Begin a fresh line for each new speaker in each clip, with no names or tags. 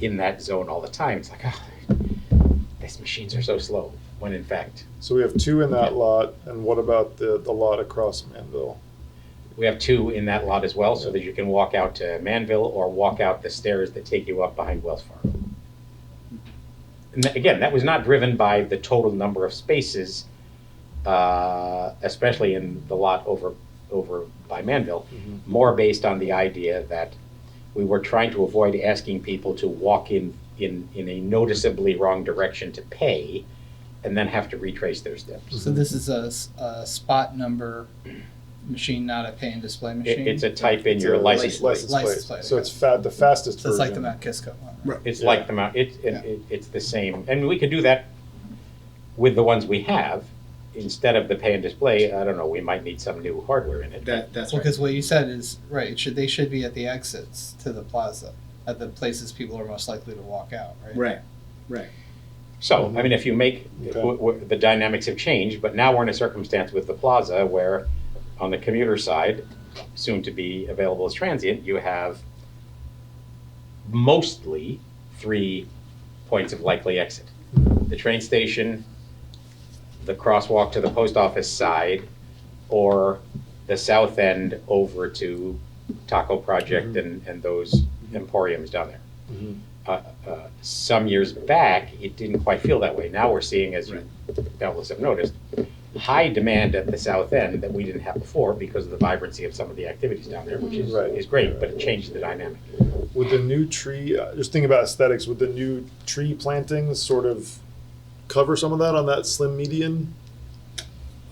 in that zone all the time. It's like, oh, these machines are so slow. When in fact,
So we have two in that lot, and what about the, the lot across Manville?
we have two in that lot as well, so that you can walk out to Manville or walk out the stairs that take you up behind Wells Fargo. And tha- again, that was not driven by the total number of spaces, uh, especially in the lot over over by Manville. more based on the idea that we were trying to avoid asking people to walk in, in, in a noticeably wrong direction to pay and then have to retrace their steps.
So this is a, s- a spot number machine, not a pay and display machine?
It- it's a type in your license plate.
License
License
plate.
plate,
So
okay.
it's fa- the fastest
So it's like the
version.
Mount Kisco one, right?
It's
Yeah.
like the mount, it, it,
Yeah.
it- it's the same, and we could do that with the ones we have. Instead of the pay and display, I don't know, we might need some new hardware in it.
That, that's right.
Because what you said is, right, it should, they should be at the exits to the plaza, at the places people are most likely to walk out, right?
Right.
So, I mean, if you make,
Okay.
w- w- the dynamics have changed, but now we're in a circumstance with the plaza where on the commuter side, soon to be available as transient, you have mostly three points of likely exit. The train station, the crosswalk to the post office side, or the south end over to Taco Project and, and those emporiums down there
Mhm.
uh, uh, some years back, it didn't quite feel that way. Now we're seeing, as you doubtless have noticed, high demand at the south end that we didn't have before because of the vibrancy of some of the activities down there, which is,
Right.
is great, but it changed the dynamic.
Would the new tree, uh, just thinking about aesthetics, would the new tree plantings sort of cover some of that on that slim median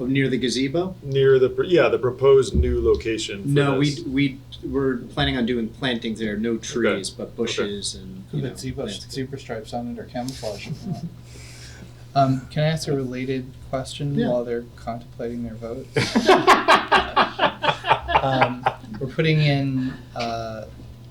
Oh, Near the gazebo?
near the, pr- yeah, the proposed new location? for
No,
this?
we, we, we're planning on doing plantings there, no trees, but bushes and, you
Could
know.
put zebra,
landscape.
zebra stripes on it or camouflage. if you want. Um, can I ask a related question
Yeah.
while they're contemplating their vote? Um, we're putting in, uh,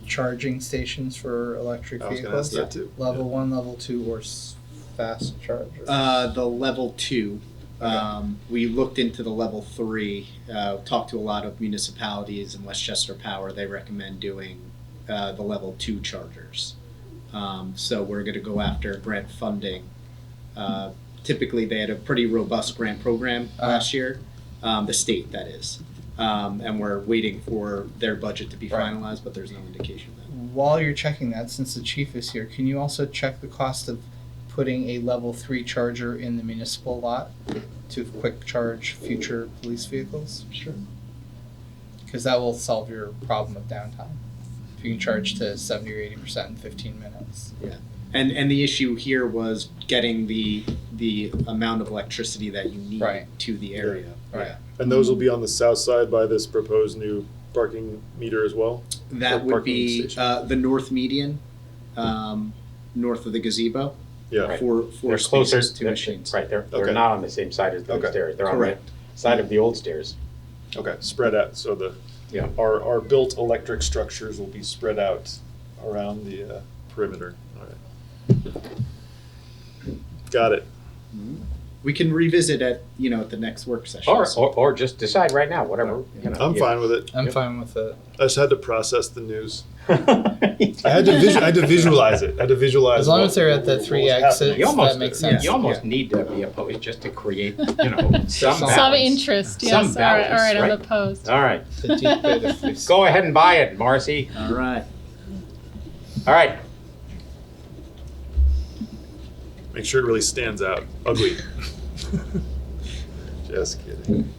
charging stations for electric
I was going to ask
vehicles.
that too.
Level one, level two, or s- fast chargers?
Uh, the level two. Um, we looked into the level three, uh, talked to a lot of municipalities in Westchester Power. They recommend doing uh, the level two chargers. Um, so we're going to go after grant funding. Uh, typically, they had a pretty robust grant program
Uh-huh.
last year, um, the state, that is. Um, and we're waiting for their budget to be
Right.
finalized, but there's no indication of that.
While you're checking that, since the chief is here, can you also check the cost of putting a level three charger in the municipal lot to quick charge future police vehicles? Sure. Because that will solve your problem of downtime. If you can charge to seventy or eighty percent in fifteen minutes.
And and the issue here was getting the the amount of electricity that you need
Right.
to the area.
Right.
And those will be on the south side by this proposed new parking meter as well?
That
Or
would
parking
be
station.
uh, the north median, um, north of the gazebo
Yeah.
Right.
for for
They're closer
spaces to
they're-
machines.
Right, they're,
Okay.
they're not on the same side as those
Okay.
stairs. They're on the
Correct.
side of the old stairs.
Okay. Spread out. So the,
Yeah.
our, our built electric structures will be spread out around the uh, perimeter. All right. Got it.
Mm-hmm. We can revisit at you know at the next work session.
Or,
So-
or, or just decide right now, whatever, you know.
I'm
you-
fine with it.
I'm
Yep.
fine with it.
I just had to process the news. I had to visu- I had to visualize it. I had to visualize.
As long
what-
as they're at the
what was
three
happening.
exits.
You almost,
That makes
you
sense.
almost need to be opposed just to create, you know, some
Some
Some
balance.
interest, yes.
Some
all right, all
balance,
right, I'm
right?
opposed.
All right,
The deep bit of police-
go ahead and buy it, Marcy.
All right.
All right,
Make sure it really stands out. Ugly. just kidding.